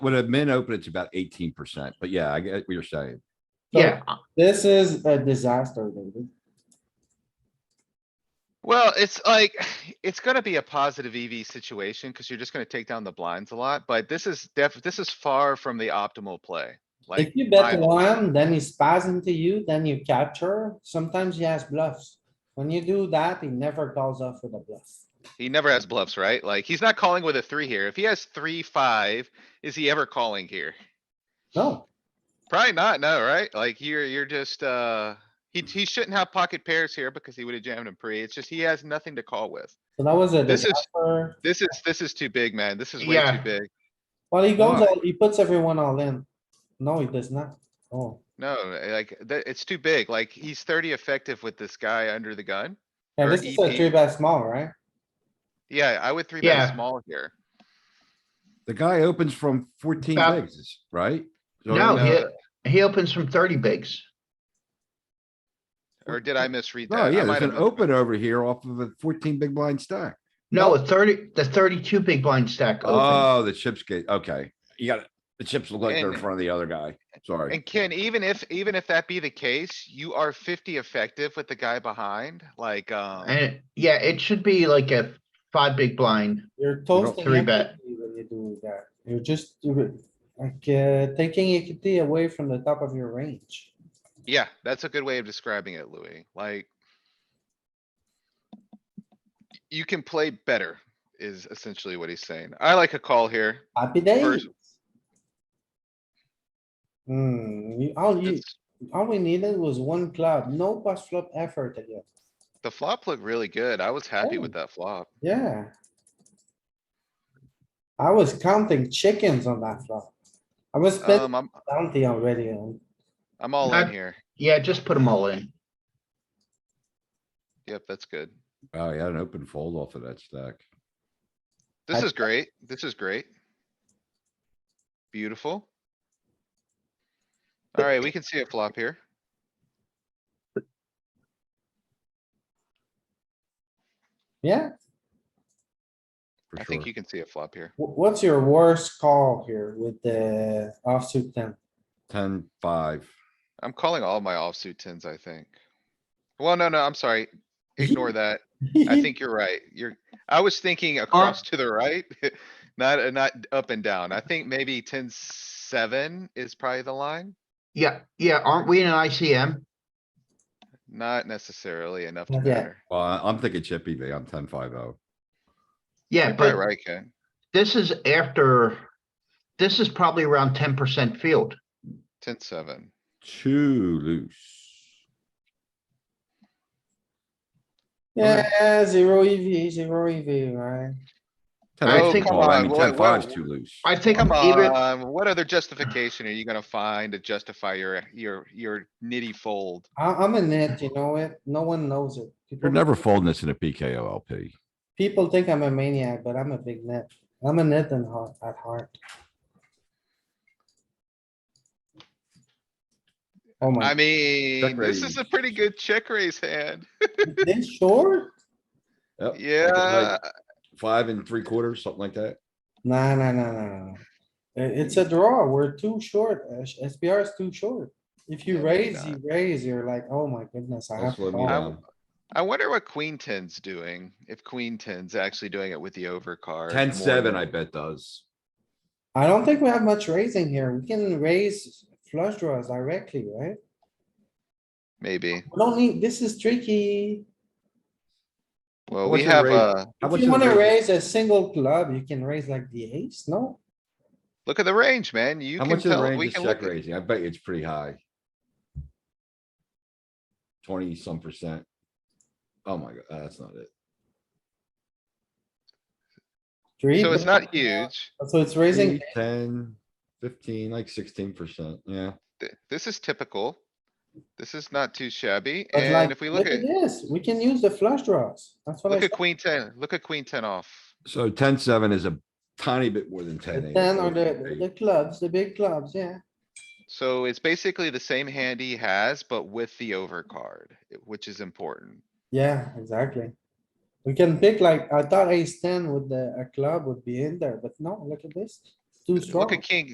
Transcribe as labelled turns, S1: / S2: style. S1: When a min open, it's about eighteen percent, but yeah, I get what you're saying.
S2: So
S3: Yeah, uh,
S2: This is a disaster, David.
S4: Well, it's like, it's gonna be a positive EV situation because you're just gonna take down the blinds a lot, but this is def, this is far from the optimal play.
S2: If
S4: Like,
S2: you bet
S4: my-
S2: one, then he spaz into you, then you capture. Sometimes he has bluffs. When you do that, he never calls off with a bluff.
S4: he never has bluffs, right? Like, he's not calling with a three here. If he has three, five, is he ever calling here?
S2: No,
S4: Probably not, no, right? Like, you're, you're just, uh, he, he shouldn't have pocket pairs here because he would have jammed him pre. It's just he has nothing to call with.
S2: so that was a
S4: This is-
S2: disaster.
S4: This is, this is too big, man. This is way too
S3: Yeah.
S4: big.
S2: Well, he goes,
S4: Why?
S2: all- he puts everyone all in. No, he does not. Oh,
S4: No, like, that, it's too big. Like, he's thirty effective with this guy under the gun.
S2: yeah,
S4: Or
S2: this is a
S4: EP.
S2: three bet small, right?
S4: Yeah, I would three bet
S3: Yeah.
S4: small here.
S1: The guy opens from fourteen
S3: About-
S1: bigs, right? So- uh,
S3: No,
S4: no.
S3: he, he opens from thirty bigs.
S4: Or did I misread that?
S1: Oh,
S4: I
S1: yeah,
S4: might
S1: there's an
S4: have-
S1: open over here off of a fourteen big blind stack.
S3: No, a thirty, the thirty-two big blind stack opens.
S1: Oh, the chips get, okay. You got, the chips look like they're in
S4: And-
S1: front of the other guy. Sorry.
S4: And Ken, even if, even if that be the case, you are fifty effective with the guy behind, like, um,
S3: And yeah, it should be like a five big blind.
S2: You're toasting.
S3: three bet.
S2: equity When you do that, you're just, you're like, uh, taking equity away from the top of your range.
S4: yeah, that's a good way of describing it, Louis, like. You can play better is essentially what he's saying. I like a call here.
S2: Happy days.
S4: First-
S2: Hmm, you- all you,
S4: It's-
S2: all we needed was one club, no post flop effort again.
S4: The flop looked really good. I was happy with
S2: Oh.
S4: that flop.
S2: Yeah. I was counting chickens on that flop. I was betting
S4: Um, I'm,
S2: bounty already on.
S4: I'm all in
S3: That-
S4: here.
S3: Yeah, just put them all in.
S4: Yep, that's good.
S1: Oh, he had an open fold off of that stack.
S4: This
S2: I-
S4: is great. This is great. Beautiful. Alright, we can see it flop here.
S2: Yeah,
S1: For
S4: I
S1: sure.
S4: think you can see it flop here.
S2: Wh- what's your worst call here with the offsuit ten?
S1: Ten, five.
S4: I'm calling all my offsuit tens, I think. Well, no, no, I'm sorry. Ignore that. I think you're right. You're, I was thinking across to the right, not, uh, not up and down. I think maybe ten seven is probably the line.
S3: Yeah, yeah, aren't we in an ICM?
S4: Not necessarily enough to
S2: Not yet.
S4: matter.
S1: Well, I- I'm thinking chip EV. I'm ten, five, oh.
S3: Yeah,
S4: You're probably
S3: but
S4: right, Ken.
S3: this is after, this is probably around ten percent field.
S4: Ten seven.
S1: Too loose.
S2: Yeah, zero EV, zero EV, right?
S1: Ten
S3: I
S1: eight
S3: think-
S1: call. I
S4: Come
S1: mean,
S4: on,
S1: ten
S4: what-
S1: five's
S4: what-
S1: too loose.
S3: I think
S4: Come
S3: even,
S4: on, what other justification are you gonna find to justify your, your, your nitty fold?
S2: I, am in it, you know it, no one knows it.
S1: You're
S2: People-
S1: never folding this in a PKO LP.
S2: People think I'm a maniac, but I'm a big net. I'm a net and heart, at heart. Oh
S4: I
S2: my,
S4: mean, this is
S1: raise.
S4: a pretty good check raise hand.
S2: this short?
S1: Yep, like
S2: Uh,
S1: it's
S4: Yeah,
S1: like Five and three quarters, something like that.
S2: Nah, nah, nah, nah, nah. I- It's a draw. We're too short. uh, sh- SPR is too short. If you
S4: Yeah, we're
S2: raise, you
S4: not.
S2: raise, you're like, oh my goodness, I have
S1: That's
S2: to
S1: what I mean.
S2: call.
S1: um,
S4: I wonder what queen ten's doing, if queen ten's actually doing it with the overcard.
S1: Ten,
S4: more
S1: seven,
S4: than-
S1: I bet does.
S2: I don't think we have much raising here. We can raise flush draws directly, right?
S4: Maybe.
S2: We don't need, this is tricky.
S4: Well,
S1: What's
S4: we
S1: your
S4: have,
S1: raise?
S4: uh,
S1: How
S2: If
S1: about
S2: you
S1: your
S2: wanna
S1: raise?
S2: raise a single club, you can raise like the ace, no?
S4: look at the range, man. You
S1: How
S4: can
S1: much of the
S4: tell, we
S1: range is
S4: can look,
S1: check
S4: at-
S1: raising? I bet you it's pretty high. Twenty some percent. Oh my god, that's not it.
S2: Three,
S4: so it's
S2: bet.
S4: not huge.
S2: So it's raising,
S1: Eight, Ten, fifteen, like sixteen percent, yeah.
S4: Th- This is typical. This is not too shabby.
S2: but like,
S4: And if we look at,
S2: This, we can use the flush draws. That's what I
S4: look at
S2: said.
S4: queen ten, look at queen ten off.
S1: So ten, seven is a tiny bit more than ten.
S2: The
S1: eight,
S2: ten or
S1: eight,
S2: the, the
S1: eight.
S2: clubs, the big clubs, yeah.
S4: So it's basically the same hand he has, but with the overcard, i- which is important.
S2: Yeah, exactly. We can pick like, I thought ace ten with the, a club would be in there, but no, look at this. It's Too strong.
S4: Look at king,